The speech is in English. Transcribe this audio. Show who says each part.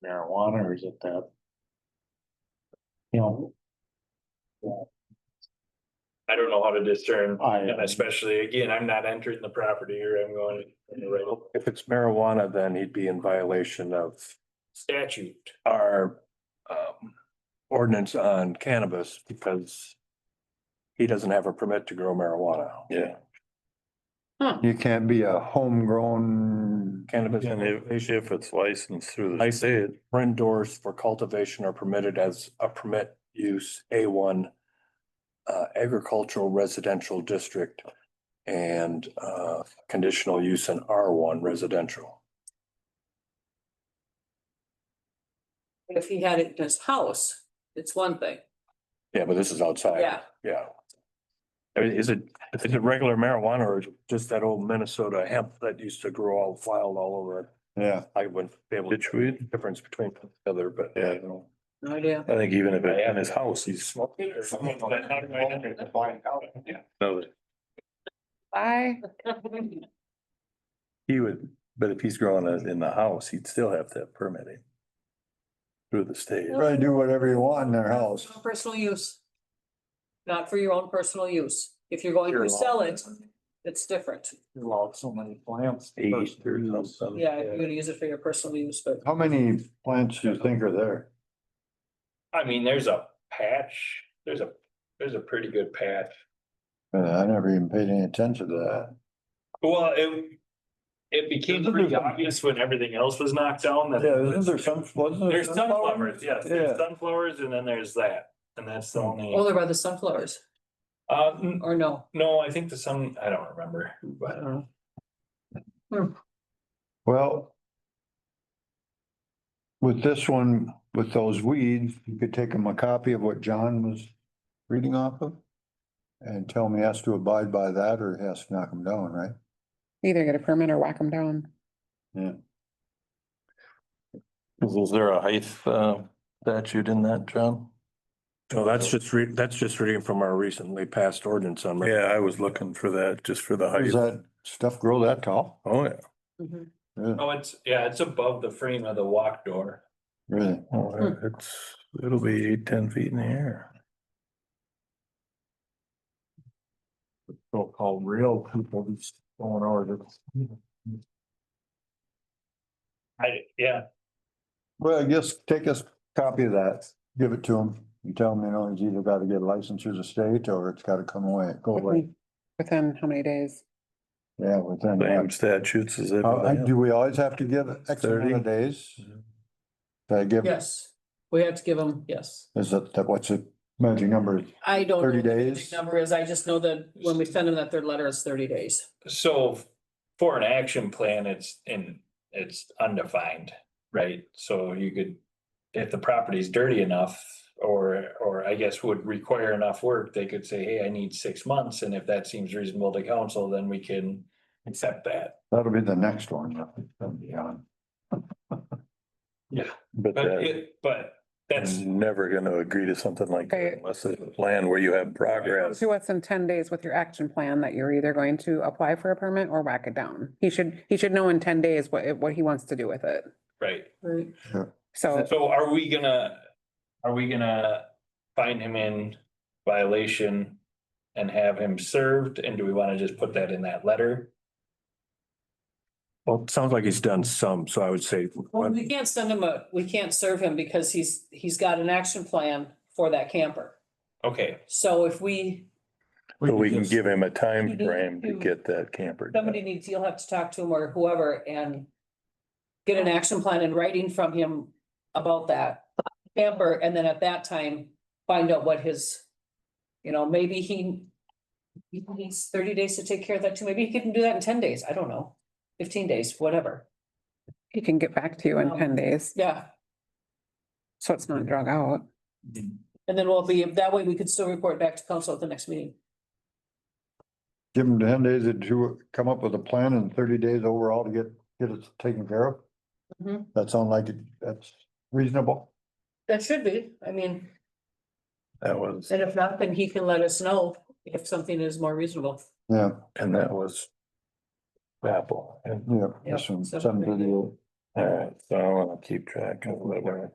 Speaker 1: marijuana or is it that? You know,
Speaker 2: I don't know how to discern,
Speaker 1: I,
Speaker 2: and especially, again, I'm not entering the property or I'm going in the right
Speaker 3: If it's marijuana, then he'd be in violation of
Speaker 2: statute.
Speaker 3: our um ordinance on cannabis because he doesn't have a permit to grow marijuana.
Speaker 1: yeah,
Speaker 4: You can't be a homegrown,
Speaker 3: Cannabis
Speaker 5: And if, if it's licensed through the
Speaker 3: License.
Speaker 5: state,
Speaker 3: or indoors for cultivation are permitted as a permit use A one uh agricultural residential district and uh conditional use in R one residential.
Speaker 6: If he had it in his house, it's one thing,
Speaker 3: Yeah, but this is outside.
Speaker 6: yeah,
Speaker 3: Yeah. I mean, Is it, is it regular marijuana or is it just that old Minnesota hemp that used to grow all wild all over?
Speaker 4: yeah.
Speaker 3: I wouldn't be able to
Speaker 5: ditch weed.
Speaker 3: difference between the other, but.
Speaker 5: Yeah.
Speaker 6: no idea.
Speaker 5: I think even if it's in his house, he's smoking. or something. No,
Speaker 6: Bye.
Speaker 5: He would, but if he's growing it in the house, he'd still have to have permitting. Through the state.
Speaker 4: Really do whatever you want in their house.
Speaker 6: Personal use. Not for your own personal use, if you're going to sell it, it's different,
Speaker 1: you allowed so many plants.
Speaker 5: Eight or
Speaker 1: first to use.
Speaker 5: something.
Speaker 6: yeah, if you're gonna use it for your personal use, but.
Speaker 4: How many plants do you think are there?
Speaker 2: I mean, there's a patch, there's a, there's a pretty good patch.
Speaker 4: Uh, I never even paid any attention to that.
Speaker 2: Well, it, it became pretty obvious when everything else was knocked down that.
Speaker 4: Yeah, isn't there some, wasn't there?
Speaker 2: There's sunflowers, yes,
Speaker 4: Yeah.
Speaker 2: there's sunflowers and then there's that, and that's the
Speaker 6: Oh,
Speaker 3: Hmm.
Speaker 2: only,
Speaker 6: they're by the sunflowers,
Speaker 2: uh, n-
Speaker 6: or no?
Speaker 2: no, I think the sun, I don't remember, but.
Speaker 4: Well. With this one, with those weeds, you could take them a copy of what John was reading off of. And tell me has to abide by that or he has to knock them down, right?
Speaker 7: Either get a permit or whack them down.
Speaker 5: Is is there a height uh statute in that, John?
Speaker 3: So that's just re, that's just reading from our recently passed ordinance on.
Speaker 5: Yeah, I was looking for that, just for the
Speaker 4: Does
Speaker 5: height.
Speaker 4: that stuff grow that tall?
Speaker 5: Oh, yeah.
Speaker 6: Mhm.
Speaker 4: Really?
Speaker 2: Oh, it's, yeah, it's above the frame of the walk door.
Speaker 4: Really?
Speaker 5: Oh, yeah, it's, it'll be eight, ten feet in the air.
Speaker 3: So-called real people who's going over this.
Speaker 2: I, yeah,
Speaker 4: Well, I guess take a copy of that, give it to him. You tell him, you know, he's either got to get a license through the state or it's got to come away, go away.
Speaker 7: Within within how many days?
Speaker 4: Yeah, within.
Speaker 5: Same
Speaker 4: that.
Speaker 5: statutes as
Speaker 4: How- I-
Speaker 5: everything.
Speaker 4: Do we always have to give X amount
Speaker 5: 30?
Speaker 4: of days?
Speaker 5: Mm-hmm.
Speaker 4: Did I give,
Speaker 6: Yes, we have to give them, yes.
Speaker 4: is it, that- what's the magic number?
Speaker 6: I don't. know
Speaker 4: 30
Speaker 6: what the magic
Speaker 4: days?
Speaker 6: Number is, I just know that when we send them that third letter, it's thirty days.
Speaker 2: so for an action plan, it's in, it's undefined, right? So you could, if the property's dirty enough, or, or I guess would require enough work, they could say, hey, I need six months, and if that seems reasonable to council, then we can accept that.
Speaker 4: That'll be the next one. that'll be on.
Speaker 5: But
Speaker 2: But
Speaker 5: that,
Speaker 2: it, but that's,
Speaker 5: I'm never gonna agree to something like that
Speaker 7: Okay.
Speaker 5: unless it's a plan where you have progress.
Speaker 7: To what's in ten days with your action plan that you're either going to apply for a permit or whack it down. He should, he should know in ten days what, it- what he wants to do with it.
Speaker 2: right.
Speaker 6: Right.
Speaker 7: So
Speaker 2: So are we gonna, are we gonna find him in violation and have him served? And do we wanna just put that in that letter?
Speaker 3: Well, it sounds like he's done some, so I would say.
Speaker 6: Well, we can't send him a, we can't serve him because he's, he's got an action plan for that camper.
Speaker 2: Okay,
Speaker 6: So if we,
Speaker 5: So we can give him a
Speaker 6: You
Speaker 5: time
Speaker 6: need
Speaker 5: frame
Speaker 6: to-
Speaker 5: to get that camper. done.
Speaker 6: somebody needs, you'll have to talk to him or whoever and get an action plan in writing from him about that camper, and then at that time, find out what his, you know, maybe he he needs thirty days to take care of that too. Maybe he can do that in ten days. I don't know. Fifteen days, whatever.
Speaker 7: he can get back to you in
Speaker 6: Um,
Speaker 7: ten days.
Speaker 6: Yeah.
Speaker 7: So it's not drug out.
Speaker 6: And then we'll be, that way we could still report back to council at the next meeting.
Speaker 4: Give them ten days to do- come up with a plan and thirty days overall to get, get it taken care of?
Speaker 6: Mhm.
Speaker 4: That sound like it- that's reasonable?
Speaker 6: That should be, I mean,
Speaker 5: That was,
Speaker 6: and if not, then he can let us know if something is more reasonable.
Speaker 4: Yeah,
Speaker 5: and that was. Apple and
Speaker 4: yeah.
Speaker 6: Yeah,
Speaker 4: Some,
Speaker 6: so-
Speaker 4: some video.
Speaker 1: All right, so I wanna keep track of what we're.